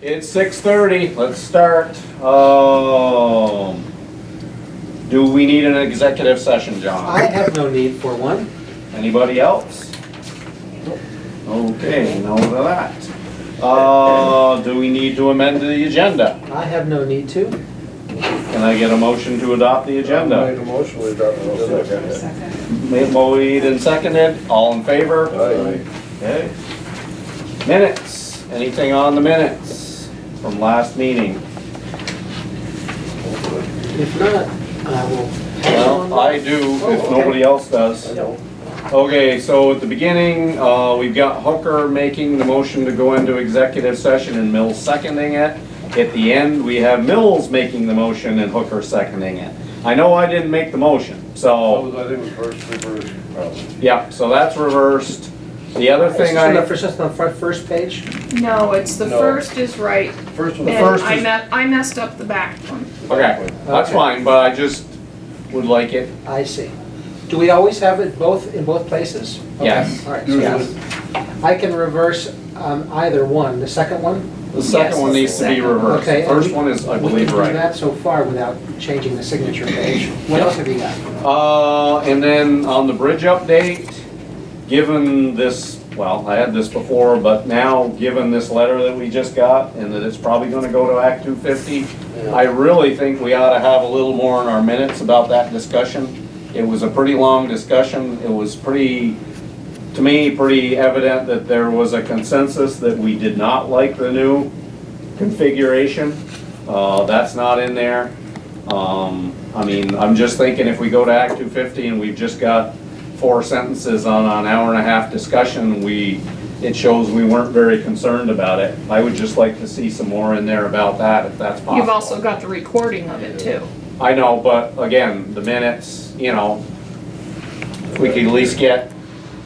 It's six thirty, let's start. Um, do we need an executive session, I John? have no need for one. Anybody else? Okay, no to that. Uh, do we need to amend the agenda? I have no need to. Can I get a motion to adopt the agenda? Made a motion, we got the agenda. Made, made and seconded, all in favor? Aye. Okay. Minutes, anything on the minutes from last meeting? If not, I will. Well, I do, if nobody else does. Okay, so at the beginning, uh, we've got Hooker making the motion to go into executive session and Mills seconding it. At the end, we have Mills making the motion and Hooker seconding it. I know I didn't make the motion, so, I think it was first, reverse, probably. yeah, so that's reversed. The other It's thing on the I, first, it's on the fir- first page. No, it's the No. first is right, First and one. first I is- me- I messed up the back one. okay, that's Okay. fine, but I just would like it, I see. Do we always have it both, in both places? Okay, Yes. All right, so Usually, I can reverse um, either one, the second one? the second one needs to be reversed. The Okay, and first we- one is, I We believe, can do right. that so far without changing the signature page. What else have you got? Uh, and then on the bridge update, given this, well, I had this before, but now, given this letter that we just got, and that it's probably gonna go to Act two fifty, I really think we ought to have a little more in our minutes about that discussion. It was a pretty long discussion, it was pretty, to me, pretty evident that there was a consensus that we did not like the new configuration. Uh, that's not in there. Um, I mean, I'm just thinking if we go to Act two fifty and we've just got four sentences on an hour and a half discussion, we, it shows we weren't very concerned about it. I would just like to see some more in there about that, if that's possible. You've also got the recording of it too. I know, but again, the minutes, you know, if we could at least get,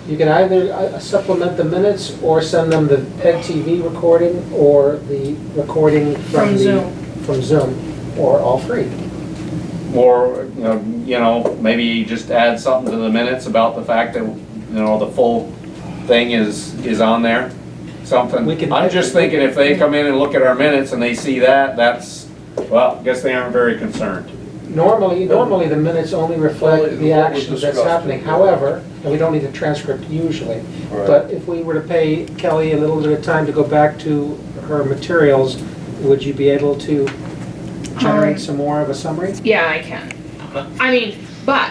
You can either uh, supplement the minutes or send them the PEG TV recording or the recording from From the. Zoom. From Zoom, or all three. more, you know, you know, maybe just add something to the minutes about the fact that, you know, the full thing is, is on there, something. We can- I'm just thinking if they come in and look at our minutes and they see that, that's, well, I guess they aren't very concerned. Normally, normally the minutes only reflect Only the what was action that's discussed. happening, however, and we don't need a transcript usually. Right. But if we were to pay Kelly a little bit of time to go back to her materials, would you be able to generate Um, some more of a summary? Yeah, I can. Uh-huh. I mean, but,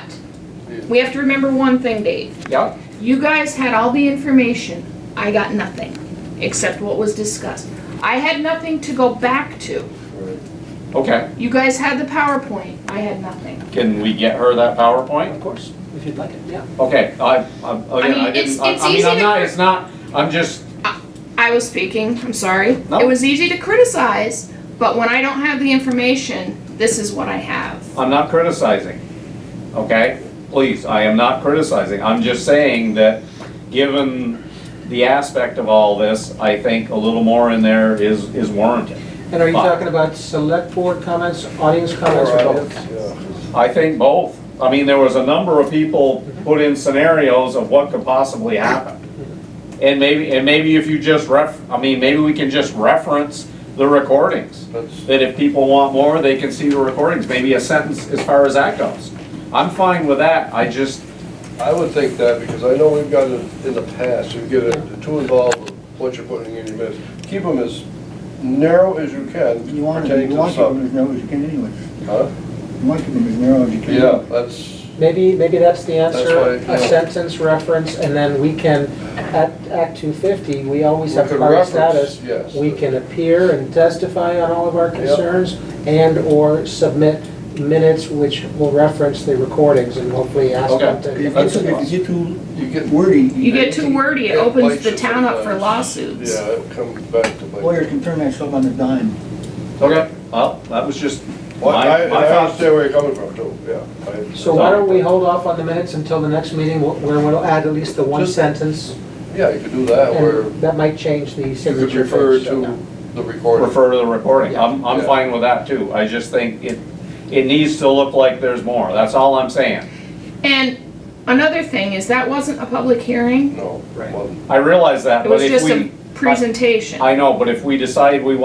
we have to remember one thing, Dave. Yeah, You guys had all the information, I got nothing, except what was discussed. I had nothing to go back to. okay. You guys had the PowerPoint, I had nothing. Can we get her that PowerPoint? Of course, if you'd like it, yeah. Okay, I, I, again, I mean, it's- didn't, I it's I mean, easy I'm to not, cr- it's not, I'm just, I was speaking, I'm sorry. No. It was easy to criticize, but when I don't have the information, this is what I have. I'm not criticizing, okay? Please, I am not criticizing. I'm just saying that, given the aspect of all this, I think a little more in there is, is warranted. And are you Fine. talking about select board comments, audience comments, or both? Yeah. I think both. I mean, there was a number of people put in scenarios of what could possibly happen. And maybe, and maybe if you just ref, I mean, maybe we can just reference the recordings. That's, that if people want more, they can see the recordings, maybe a sentence as far as that goes. I'm fine with that, I just, I would think that, because I know we've got it in the past, you get it too involved with what you're putting in your minutes. Keep them as narrow as you can. You want to, pertaining you to the want to keep them as subject. narrow as you can anyway. Huh? You want to keep them as narrow as you can. Yeah, that's, Maybe, maybe that's the That's answer, why, a yeah. sentence reference, and then we can, at Act 250, we always We have could party reference, status. yes. We can appear and testify on all of our concerns, and/or submit minutes which will reference the recordings, and hopefully ask them Okay. to... If you That's get- if you get you get, too wordy, You you- get too wordy, it Yeah, opens bites the you town up for sometimes. lawsuits. yeah, it comes back to bite. lawyers can turn that stuff on a dime. okay, well, that was just Well, my, I, my I thoughts. understand where you're coming from too, yeah. I- So why don't we hold off on the minutes until the next meeting, wh- where we'll add at least the one Just- sentence, Yeah, you could do that, where and that might change the you could signature refer page. to the recording. Refer to the recording, I'm, I'm Yeah. fine with that too, I just think it, it needs to look like there's more, that's all I'm saying. And another thing is that wasn't a public hearing, No. Right. wasn't. I realize that, it but was if just a we, presentation. I know, but if we decide we want